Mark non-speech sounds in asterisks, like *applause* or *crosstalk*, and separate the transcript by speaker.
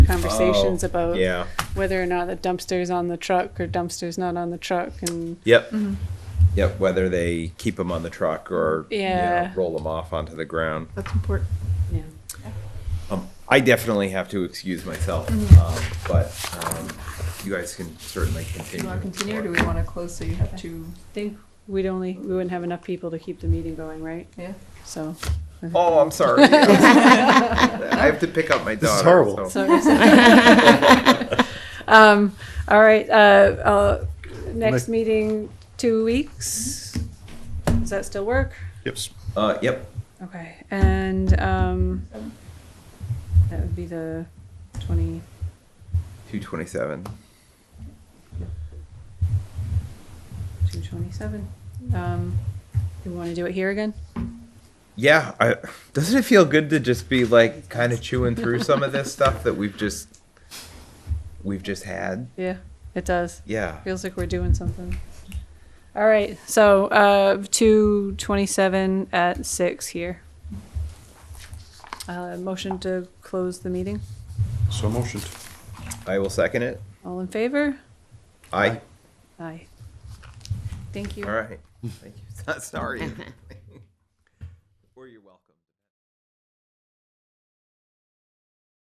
Speaker 1: conversations
Speaker 2: Oh,
Speaker 1: about
Speaker 2: yeah.
Speaker 1: whether or not the dumpster's on the truck or dumpster's not on the truck and
Speaker 2: Yep. Yep. Whether they keep them on the truck or you know,
Speaker 1: Yeah.
Speaker 2: roll them off onto the ground.
Speaker 3: That's important.
Speaker 1: yeah.
Speaker 2: Um, I definitely have to excuse myself,
Speaker 1: Mm-hmm.
Speaker 2: um, but um, you guys can certainly
Speaker 3: Do
Speaker 2: continue.
Speaker 3: you want to continue or do we want to close so you have to,
Speaker 1: I think we'd only we wouldn't have enough people to keep the meeting going, right?
Speaker 3: yeah?
Speaker 1: So
Speaker 2: Oh, I'm
Speaker 3: *laughs*
Speaker 2: sorry. *laughs* I have to pick up my daughter.
Speaker 4: This is horrible.
Speaker 1: *laughs*
Speaker 2: so-
Speaker 1: so *laughs* um, all right. Uh, uh, next meeting two weeks. Does that still work?
Speaker 4: Yep.
Speaker 2: *laughs* Uh, yep.
Speaker 1: Okay, and um, that would be the twenty.
Speaker 2: 227.
Speaker 1: Two twenty-seven. Um, you want to do it here again?
Speaker 2: Yeah. I, doesn't it feel good to just be like kind of chewing through some of this stuff that we've just we've just had?
Speaker 1: Yeah, it does.
Speaker 2: Yeah.
Speaker 1: Feels like we're doing something. All right, so uh, two twenty-seven at six here. Uh, motion to close the meeting.
Speaker 4: So motioned.
Speaker 2: I will second it.
Speaker 1: All in favor?
Speaker 2: I.
Speaker 1: Aye. Thank you.
Speaker 2: All right. Thank you. *laughs* Sorry.